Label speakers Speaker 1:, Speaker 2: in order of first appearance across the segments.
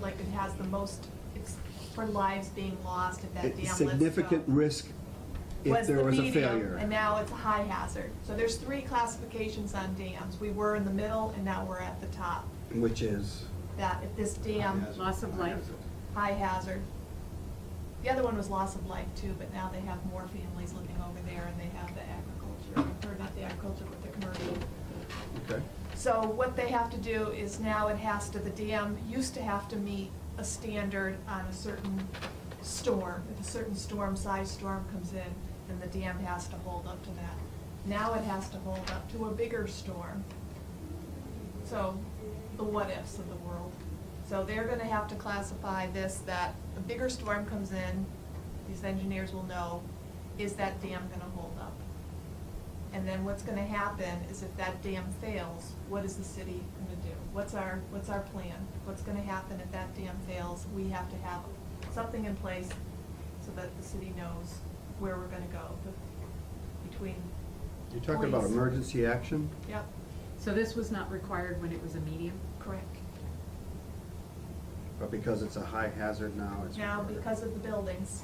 Speaker 1: like it has the most, it's for lives being lost if that dam lets go.
Speaker 2: significant risk if
Speaker 1: was
Speaker 2: there
Speaker 1: the
Speaker 2: was a
Speaker 1: medium,
Speaker 2: failure.
Speaker 1: And now it's a high hazard. So there's three classifications on dams. We were in the middle and now we're at the top.
Speaker 2: Which is,
Speaker 1: That if this dam,
Speaker 3: Loss of life.
Speaker 1: high hazard. The other one was loss of life too, but now they have more families living over there and they have the agriculture, or not the agriculture, but the commercial.
Speaker 2: okay,
Speaker 1: So what they have to do is now it has to, the dam used to have to meet a standard on a certain storm. If a certain storm, size storm comes in, then the dam has to hold up to that. Now it has to hold up to a bigger storm. So the what ifs of the world. So they're gonna have to classify this, that a bigger storm comes in, these engineers will know, is that dam gonna hold up? And then what's gonna happen is if that dam fails, what is the city gonna do? What's our, what's our plan? What's gonna happen if that dam fails? We have to have something in place so that the city knows where we're gonna go be- between.
Speaker 2: you're talking about
Speaker 1: police.
Speaker 2: emergency action?
Speaker 1: Yep,
Speaker 3: So this was not required when it was a medium?
Speaker 1: correct.
Speaker 2: But because it's a high hazard now, Oh, it's.
Speaker 1: Now, because of the buildings,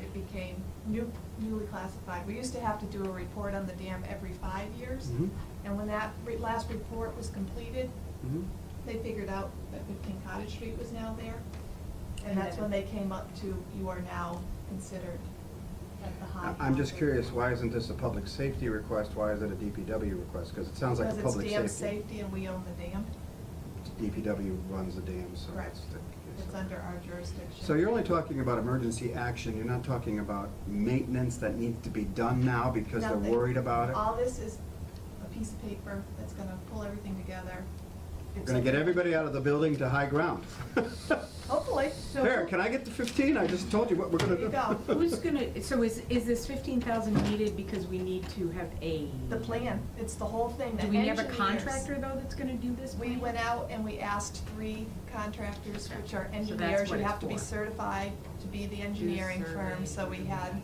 Speaker 1: it became new, newly classified. We used to have to do a report on the dam every five years.
Speaker 2: Mhm.
Speaker 1: And when that re- last report was completed,
Speaker 2: Mhm.
Speaker 1: they figured out that fifteen Cottage Street was now there. And
Speaker 3: And
Speaker 1: that's
Speaker 3: then-
Speaker 1: when they came up to, you are now considered at the high.
Speaker 2: I- I'm just
Speaker 1: hazard."
Speaker 2: curious, why isn't this a public safety request? Why is it a DPW request? Because it sounds like a
Speaker 1: Because
Speaker 2: public
Speaker 1: it's
Speaker 2: safety.
Speaker 1: dam safety and we own the dam.
Speaker 2: DPW runs the dam, so
Speaker 1: Correct.
Speaker 2: that's the.
Speaker 1: It's under our jurisdiction.
Speaker 2: So you're only talking about emergency action, you're not talking about maintenance that needs to be done now because they're
Speaker 1: Nothing.
Speaker 2: worried about it?
Speaker 1: All this is a piece of paper that's gonna pull everything together.
Speaker 2: We're gonna get everybody out of the building to high ground.
Speaker 1: Hopefully. So
Speaker 2: There, can I get the fifteen? I just told you what we're gonna do.
Speaker 1: There you go.
Speaker 3: Who's gonna, so is, is this fifteen thousand needed because we need to have a?
Speaker 1: The plan, it's the whole thing, the
Speaker 3: Do we have a
Speaker 1: engineers-
Speaker 3: contractor though that's gonna do this?
Speaker 1: We
Speaker 3: plan?
Speaker 1: went out and we asked three contractors, which are
Speaker 3: Okay. So that's
Speaker 1: engineers, you
Speaker 3: what it's
Speaker 1: have to be
Speaker 3: for.
Speaker 1: certified to be the engineering firm, so we had,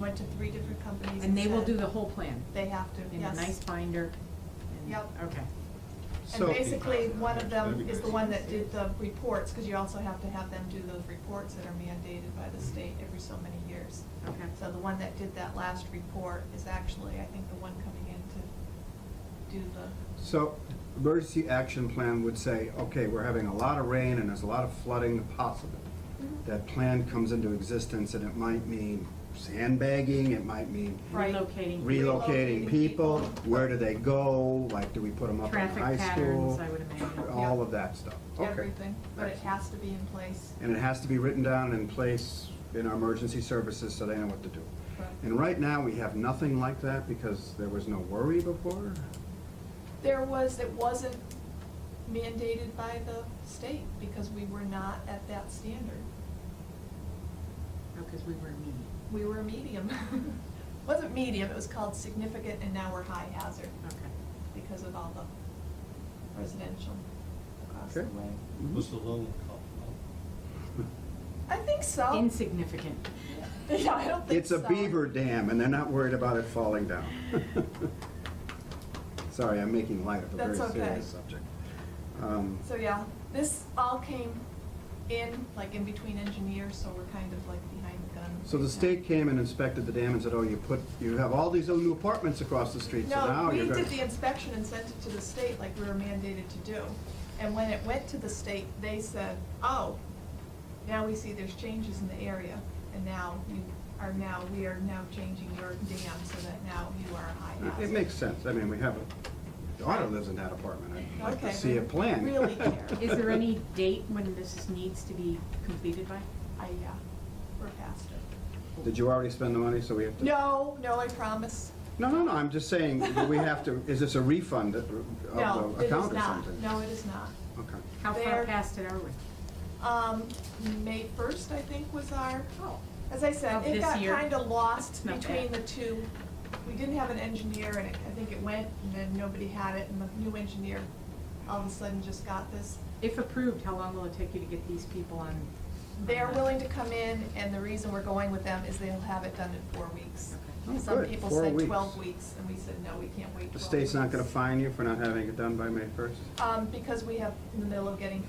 Speaker 1: went to three different companies
Speaker 3: And they will
Speaker 1: said
Speaker 3: do the whole plan?
Speaker 1: They have to,
Speaker 3: In a nice
Speaker 1: yes.
Speaker 3: binder? and-
Speaker 1: Yep.
Speaker 3: Okay.
Speaker 1: And
Speaker 2: So,
Speaker 1: basically, one of them
Speaker 4: That'd be
Speaker 1: is the
Speaker 4: great.
Speaker 1: one that did the reports, because you also have to have them do those reports that are mandated by the state every so many years.
Speaker 3: Okay.
Speaker 1: So the one that did that last report is actually, I think, the one coming in to do the,
Speaker 2: so emergency action plan would say, okay, we're having a lot of rain and there's a lot of flooding possible.
Speaker 1: Mm-hmm.
Speaker 2: That plan comes into existence and it might mean sandbagging, it might mean
Speaker 1: Right.
Speaker 2: relocating
Speaker 3: Relocating
Speaker 1: Relocating
Speaker 2: people,
Speaker 1: people.
Speaker 2: where do they go, like, do we put them up in
Speaker 3: traffic
Speaker 2: high school?
Speaker 3: patterns, I would imagine.
Speaker 2: All
Speaker 1: Yeah.
Speaker 2: of that stuff, okay.
Speaker 1: everything, but it
Speaker 2: Excellent.
Speaker 1: has to be in place.
Speaker 2: And it has to be written down in place in our emergency services so they know what to do.
Speaker 1: Correct.
Speaker 2: And right now, we have nothing like that because there was no worry before?
Speaker 1: There was, it wasn't mandated by the state because we were not at that standard.
Speaker 3: Because oh, we were a medium.
Speaker 1: We were medium. Wasn't medium, it was called significant and now we're high hazard
Speaker 3: Okay.
Speaker 1: because of all the residential across the
Speaker 2: Okay.
Speaker 1: way.
Speaker 4: Was the loan called?
Speaker 1: I think so.
Speaker 3: Insignificant.
Speaker 1: Yeah, I don't think
Speaker 2: It's
Speaker 1: so.
Speaker 2: a beaver dam, and they're not worried about it falling down. Sorry, I'm making light of a very
Speaker 1: That's okay.
Speaker 2: serious subject. Um,
Speaker 1: So yeah, this all came in, like in between engineers, so we're kind of like behind the gun.
Speaker 2: So the state came and inspected the dam and said, oh, you put, you have all these little new apartments across the street, so
Speaker 1: No,
Speaker 2: now
Speaker 1: we
Speaker 2: you're gonna...
Speaker 1: did the inspection and sent it to the state like we were mandated to do. And when it went to the state, they said, oh, now we see there's changes in the area. And now you are now, we are now changing your dam so that now you are a high
Speaker 2: It
Speaker 1: hazard.
Speaker 2: makes sense, I mean, we have, a- Donna lives in that apartment, I'd like
Speaker 1: Okay,
Speaker 2: to see a
Speaker 1: then
Speaker 2: plan.
Speaker 1: really care.
Speaker 3: Is there any date when this is- needs to be completed by?
Speaker 1: I, yeah, we're past it.
Speaker 2: Did you already spend the money, so we have to?
Speaker 1: No, no, I promise.
Speaker 2: No, no, no, I'm just saying, that we have to, is this a refund of
Speaker 1: No,
Speaker 2: the
Speaker 1: it is
Speaker 2: account or
Speaker 1: not.
Speaker 2: something?
Speaker 1: No, it is not.
Speaker 2: Okay.
Speaker 3: How far
Speaker 1: There-
Speaker 3: past it are we?
Speaker 1: Um, May first, I think, was our,
Speaker 3: Oh.
Speaker 1: as I said,
Speaker 3: Of
Speaker 1: it
Speaker 3: this
Speaker 1: got
Speaker 3: year.
Speaker 1: kinda lost
Speaker 3: It's not
Speaker 1: between the
Speaker 3: bad.
Speaker 1: two. We didn't have an engineer and it- I think it went and then nobody had it and the new engineer all of a sudden just got this.
Speaker 3: If approved, how long will it take you to get these people on?
Speaker 1: They're willing to come in and the reason we're going with them is they'll have it done in four weeks.
Speaker 2: Oh,
Speaker 1: Some
Speaker 2: good.
Speaker 1: people
Speaker 2: Four
Speaker 1: said
Speaker 2: weeks.
Speaker 1: twelve weeks and we said, no, we can't wait twelve
Speaker 2: The state's not
Speaker 1: weeks."
Speaker 2: gonna fine you for not having it done by May first?
Speaker 1: Um, because we have, in the middle of getting